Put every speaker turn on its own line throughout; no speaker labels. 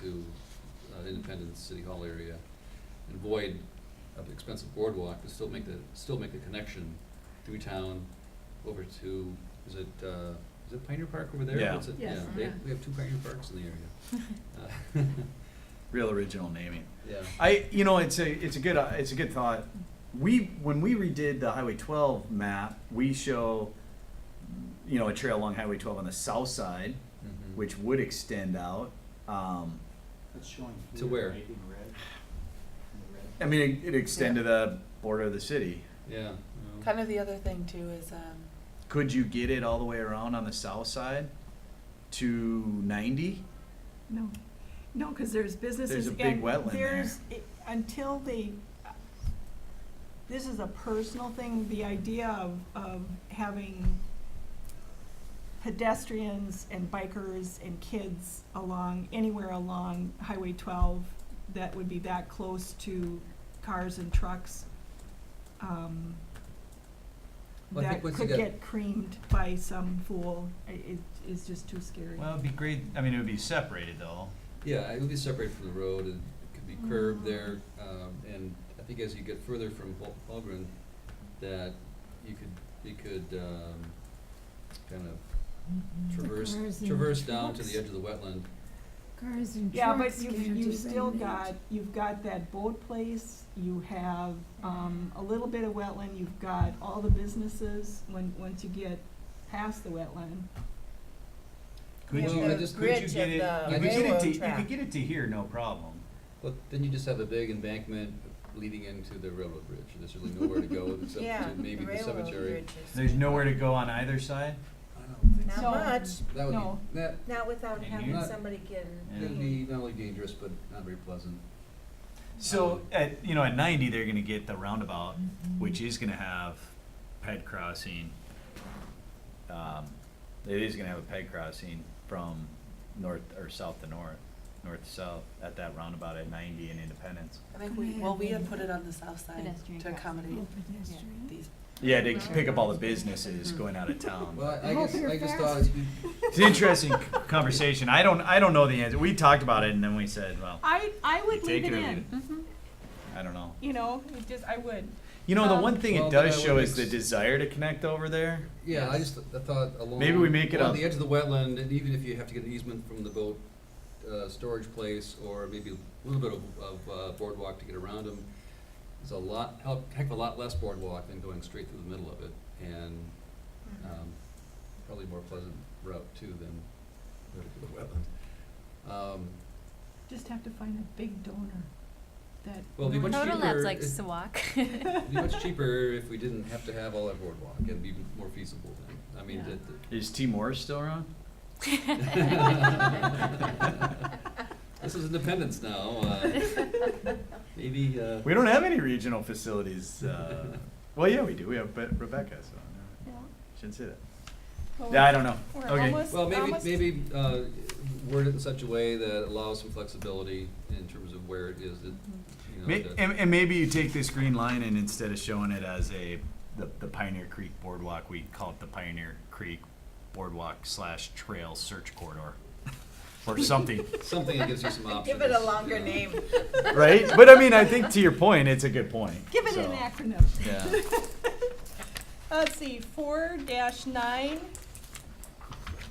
to uh, Independence, City Hall area, and void of expensive boardwalk, but still make the, still make the connection through town over to, is it, uh, is it Pioneer Park over there?
Yeah.
What's it?
Yes.
Yeah, they- we have two Pioneer Parks in the area.
Real original naming.
Uh, Yeah.
I, you know, it's a, it's a good, uh, it's a good thought. We, when we redid the Highway twelve map, we show, you know, a trail along Highway twelve on the south side,
Mhm.
which would extend out. Um,
It's showing
To
here.
where?
right, in red, in the red.
I mean, it, it extend to the border of the city.
Yeah. no.
Kind of the other thing too is, um,
Could you get it all the way around on the south side to ninety?
No, no, because there's businesses.
There's a big
and
wetland there.
there's- it- Until they, this is a personal thing, the idea of, of having pedestrians and bikers and kids along, anywhere along Highway twelve that would be that close to cars and trucks, um,
Well, I
that
think once you
could
get-
get creamed by some fool, i- it is just too scary.
Well, it'd be great, I mean, it would be separated though.
Yeah, it would be separated from the road, and it could be curved there, um, and I think as you get further from Hol- Holgren, that you could, you could, um, kind of traverse,
cars and
traverse down to
trucks.
the edge of the wetland.
Cars and
Yeah,
trucks
but
can't
you've, you've
even
still
make-
got, you've got that boat place, you have, um, a little bit of wetland, you've got all the businesses when, once you get past the wetland.
Could
Yeah,
you,
the
could you
bridge
get
of
it,
the
you could get it
railroad
to, you
track.
could get it to here, no problem.
But then you just have a big embankment leading into the railroad bridge, and there's really nowhere to go except
yeah,
to
the
maybe the
railroad
cemetery.
bridges.
There's nowhere to go on either side?
I don't think
Not
No.
much,
so. That
No.
would be, that,
not without
And
having
you're-
somebody getting.
that'd be not only dangerous, but not very pleasant.
So at, you know, at ninety, they're gonna get the roundabout, which is gonna have ped crossing. Um, it is gonna have a ped crossing from north or south to north, north to south at that roundabout at ninety and Independence.
I think we, well, we had put it on the south side
Pedestrian
to
crossing.
accommodate
Oh, pedestrian.
these.
Yeah, to pick up all the businesses going out of town.
Well, I I
Hope
guess,
you're
I just
fast.
thought it'd be
It's an interesting c- conversation. I don't, I don't know the answer. We talked about it and then we said, well,
I, I
you
would
take
leave
it
it
or leave
in,
it. I don't know.
you know, it just, I would.
You know, the
Um,
one thing
Well,
it
then
does
I
show
would
is the
ex-
desire to connect over there.
Yeah, I just, th- I thought along.
Maybe we make it
along
up.
the edge of the wetland, and even if you have to get an easement from the boat, uh, storage place, or maybe a little bit of, of uh, boardwalk to get around them, there's a lot, hell, heck of a lot less boardwalk than going straight through the middle of it, and,
Mm-hmm.
um, probably more pleasant route too than going through the wetland. Um,
Just have to find a big donor that.
Well, it'd be
really-
much
Total
cheaper
Labs likes
is-
to walk.
it'd be much cheaper if we didn't have to have all that boardwalk, it'd be more feasible then, I mean,
Yeah.
that, that-
Is T Morris still around?
This is independence now. Uh, maybe uh,
We don't have any regional facilities. Uh, well, yeah, we do. We have Be- Rebecca, so no,
Yeah.
shouldn't say that.
Well,
Yeah, I don't know.
we're
Okay.
almost-
well, maybe
almost-
maybe uh, word it in such a way that allows some flexibility in terms of where it is. That, you know,
May-
the-
and, and maybe you take this green line and instead of showing it as a the, the Pioneer Creek Boardwalk, we call it the Pioneer Creek Boardwalk slash Trail Search Corridor, or something,
something that gives you some options.
Give it a
you
longer
know.
name.
right? But I mean, I think to your point, it's a good point.
Give it
so,
an acronym.
Yeah.
Let's see, four dash nine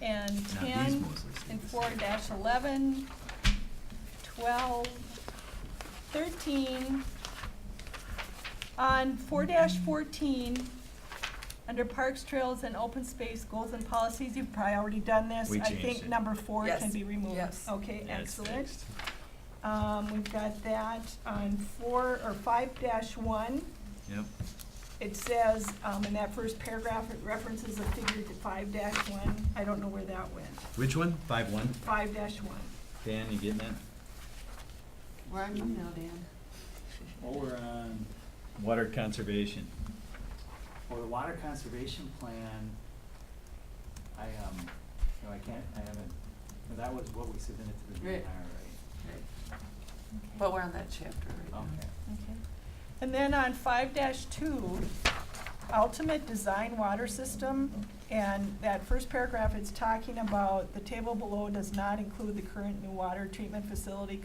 and
Now, these
ten
mostly stay
and
the
four
same.
dash eleven, twelve, thirteen. On four dash fourteen, under parks, trails, and open space goals and policies, you've probably already done this.
We
I
changed
think
it.
number four can
Yes,
be removed.
yes.
Okay,
Yeah, it's
excellent.
fixed.
Um, we've got that on four, or five dash one.
Yep.
It says, um, in that first paragraph, it references a figure to five dash one, I don't know where that went,
Which one? Five one.
five dash one.
Dan, you getting that?
Where are you now, Dan?
Well, we're on,
Water conservation.
well, the water conservation plan, I, um, no, I can't, I haven't, no, that was what we submitted to the DNR,
Right.
right?
But we're on that chapter right now.
Okay.
Okay. And then on five dash two, ultimate design water system And that first paragraph, it's talking about the table below does not include the current new water treatment facility